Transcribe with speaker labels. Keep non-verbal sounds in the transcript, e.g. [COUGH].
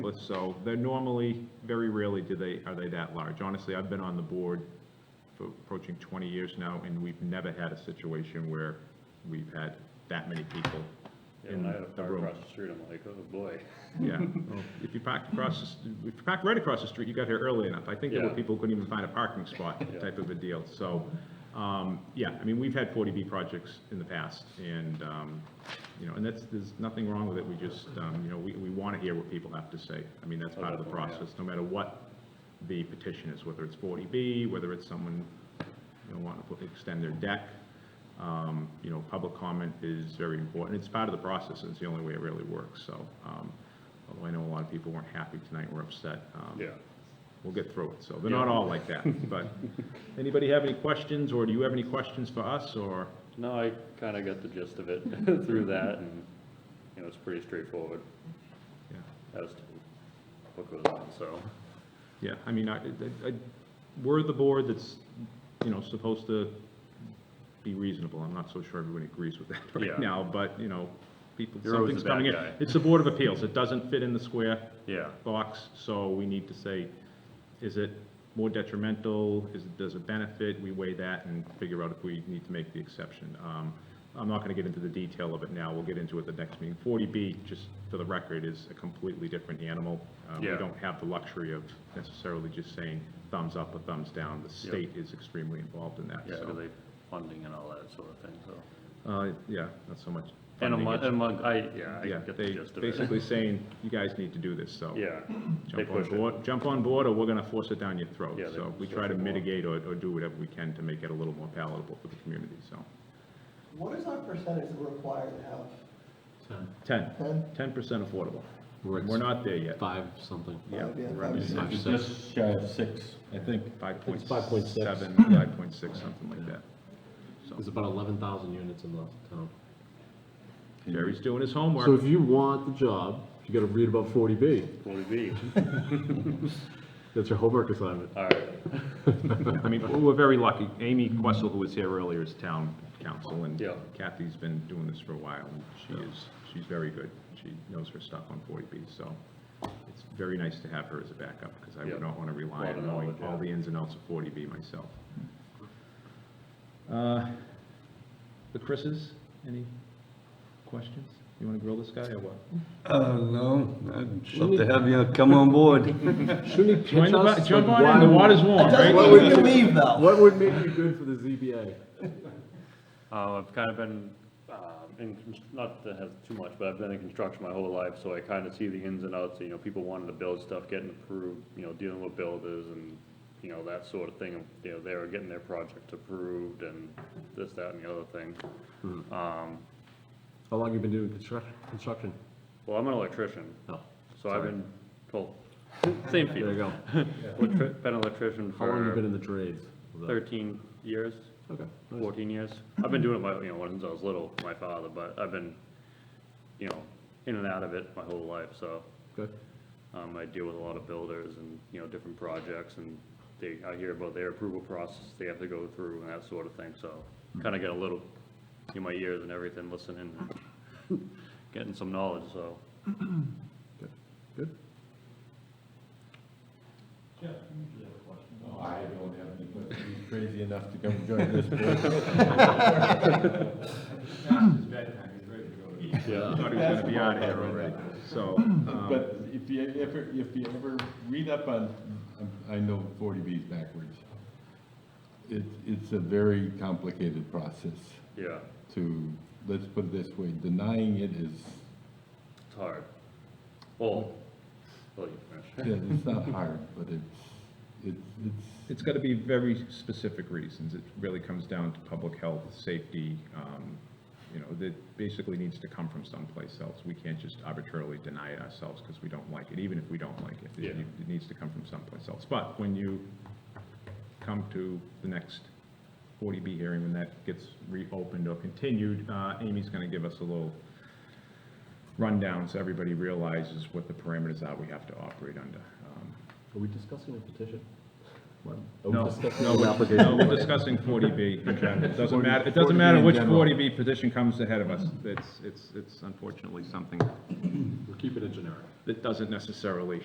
Speaker 1: But So they're normally, very rarely do they, are they that large. Honestly, I've been on the board for approaching 20 years now, and we've never had a situation where we've had that many people
Speaker 2: Yeah,
Speaker 1: in
Speaker 2: when I had a
Speaker 1: the
Speaker 2: car
Speaker 1: room.
Speaker 2: across the street, I'm like, oh, boy.
Speaker 1: Yeah, well, if you parked across, the st- if you parked right across the street, you got here early enough. I think there were
Speaker 2: Yeah.
Speaker 1: people who couldn't even find a parking spot,
Speaker 2: Yeah.
Speaker 1: type of a deal. So, um, yeah, I mean, we've had 40B projects in the past, and, um, you know, and that's, there's nothing wrong with it. We just, um, you know, we, we want to hear what people have to say. I mean, that's
Speaker 2: Oh,
Speaker 1: part of the
Speaker 2: definitely, yeah.
Speaker 1: process, no matter what the petition is, whether it's 40B, whether it's someone, you know, wanting to put- extend their deck. Um, You know, public comment is very important. It's part of the process, and it's the only way it really works, so. um, Although I know a lot of people weren't happy tonight, were upset. um,
Speaker 2: Yeah.
Speaker 1: We'll get through it, so they're not all like that, but. Anybody have any questions, or do you have any questions for us, or?
Speaker 2: No, I kind of got the gist of it [LAUGHS] through that, and, you know, it's pretty straightforward
Speaker 1: Yeah.
Speaker 2: as to what goes on, so.
Speaker 1: Yeah, I mean, I, I- I- we're the board that's, you know, supposed to be reasonable. I'm not so sure everyone agrees with that [LAUGHS]
Speaker 2: Yeah.
Speaker 1: right now, but, you know, people,
Speaker 2: You're always
Speaker 1: something's
Speaker 2: the bad
Speaker 1: coming in.
Speaker 2: guy.
Speaker 1: It's the Board of Appeals. It doesn't fit in the square
Speaker 2: Yeah,
Speaker 1: box, so we need to say, is it more detrimental? Is, it does it benefit? We weigh that and figure out if we need to make the exception. Um, I'm not going to get into the detail of it now. We'll get into it the next meeting. 40B, just for the record, is a completely different animal. Uh, We
Speaker 2: Yeah.
Speaker 1: don't have the luxury of necessarily just saying thumbs up or thumbs down. The state is extremely involved in that,
Speaker 2: yeah, do
Speaker 1: so.
Speaker 2: they funding and all that sort of thing, so.
Speaker 1: Uh, Yeah, not so much.
Speaker 2: And
Speaker 1: funding,
Speaker 2: among,
Speaker 1: it's-
Speaker 2: among, I, yeah, I
Speaker 1: Yeah,
Speaker 2: get the
Speaker 1: they
Speaker 2: gist of it.
Speaker 1: basically saying, you guys need to do this, so.
Speaker 2: Yeah, they
Speaker 1: jump on
Speaker 2: push it.
Speaker 1: board, jump on board, or we're gonna force it down your throat.
Speaker 2: Yeah, they
Speaker 1: So we
Speaker 2: force
Speaker 1: try to
Speaker 2: it more.
Speaker 1: mitigate or, or do whatever we can to make it a little more palatable for the community, so.
Speaker 3: What is our percentage that we're required to have?
Speaker 1: Ten,
Speaker 3: Ten?
Speaker 1: ten percent affordable.
Speaker 4: We're at
Speaker 1: We're not there yet.
Speaker 4: five something.
Speaker 1: Yeah,
Speaker 3: Five, yeah,
Speaker 1: we're
Speaker 3: five
Speaker 1: under
Speaker 3: or six.
Speaker 4: Five,
Speaker 5: It's
Speaker 4: six.
Speaker 5: just shy of six, I think.
Speaker 1: five point
Speaker 5: It's 5.6.
Speaker 1: seven, five point six, something like that.
Speaker 4: There's about eleven thousand units in the town.
Speaker 1: Jerry's doing his
Speaker 4: So if
Speaker 1: homework.
Speaker 4: you want the job, you gotta read about forty B.
Speaker 2: Forty B,
Speaker 4: That's your homework assignment.
Speaker 2: all right,
Speaker 1: I mean, we're- we're very lucky. Amy Questle, who was here earlier, is town council, and
Speaker 2: Yeah.
Speaker 1: Kathy's been doing this for a while, and she is, she's very good. She knows her stuff on forty B, so it's very nice to have her as a backup, because I
Speaker 2: Yeah.
Speaker 1: would not want to rely
Speaker 2: Lot of
Speaker 1: on knowing
Speaker 2: knowledge,
Speaker 1: all
Speaker 2: yeah.
Speaker 1: the ins and outs of forty B myself.
Speaker 2: Hmm.
Speaker 1: Uh, The Chris's, any questions? You want to grill this guy or what?
Speaker 5: Uh, no, I'd love to have you come on board.
Speaker 4: Shouldn't he
Speaker 1: Join
Speaker 4: pitch
Speaker 1: the
Speaker 4: us?
Speaker 1: bu- Jump
Speaker 4: Like,
Speaker 1: on in,
Speaker 4: why-
Speaker 1: the water's warm, right?
Speaker 3: What would you leave though?
Speaker 4: What would make you good for the ZBA?
Speaker 2: Uh, I've kind of been, um, in, cons- not to have too much, but I've been in construction my whole life, so I kind of see the ins and outs, you know, people wanting to build stuff, getting approved, you know, dealing with builders and, you know, that sort of thing, you know, they're getting their project approved and this, that, and the other thing. Um,
Speaker 4: How long you been doing construction, construction?
Speaker 2: well, I'm an electrician,
Speaker 4: No.
Speaker 2: so I've been, well, same
Speaker 4: There you
Speaker 2: field,
Speaker 4: go.
Speaker 2: Electri- been an electrician
Speaker 4: How long you been
Speaker 2: for
Speaker 4: in the trades? Was that-
Speaker 2: thirteen years.
Speaker 4: Okay. nice.
Speaker 2: 14 years. I've been doing it, my, you know, since I was little, my father, but I've been, you know, in and out of it my whole life, so,
Speaker 4: Good.
Speaker 2: um, I deal with a lot of builders and, you know, different projects, and they, I hear about their approval process they have to go through and that sort of thing, so, kinda get a little, in my ears and everything, listening, and getting some knowledge, so.
Speaker 4: Good.
Speaker 5: No, I don't have any, but he's crazy enough to come join this board.
Speaker 1: I thought he was going to be out of here already, so. um,
Speaker 5: But if you ever, if you ever read up on, I know forty Bs backwards. It, it's a very complicated process
Speaker 2: Yeah,
Speaker 5: to, let's put it this way, denying it is
Speaker 2: it's hard. Well, well, you finish.
Speaker 5: Yeah, it's not
Speaker 1: [LAUGHS]
Speaker 5: hard, but it's, it's, it's,
Speaker 1: It's got to be very specific reasons. It really comes down to public health, safety, um, you know, that basically needs to come from someplace else. We can't just arbitrarily deny it ourselves because we don't like it, even if we don't like it. It
Speaker 2: Yeah.
Speaker 1: it needs to come from someplace else. But when you come to the next 40B hearing, when that gets reopened or continued, uh, Amy's going to give us a little rundown so everybody realizes what the parameters are we have to operate under. Um,
Speaker 4: Are we discussing a petition? What?
Speaker 1: No, no,
Speaker 4: the
Speaker 1: we're- no,
Speaker 4: application.
Speaker 1: we're discussing forty B in general. It doesn't matter, it doesn't matter which forty B position comes ahead of us. It's, it's, it's unfortunately something
Speaker 4: We're keeping it generic.
Speaker 1: that doesn't necessarily